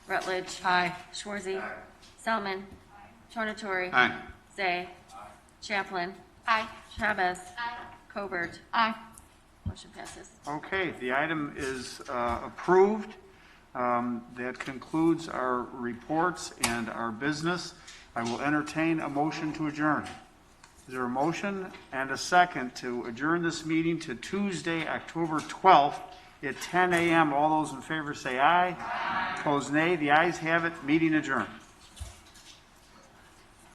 Rutledge. Aye. Schwarzy. Selman. Tornatori. Aye. Zay. Chaplin. Aye. Chavez. Covert. Aye. Motion passes. Okay, the item is uh, approved. Um, That concludes our reports and our business. I will entertain a motion to adjourn. Is there a motion and a second to adjourn this meeting to Tuesday, October 12th at 10 a.m.? All those in favor say aye. Opposed, nay. The ayes have it. Meeting adjourned.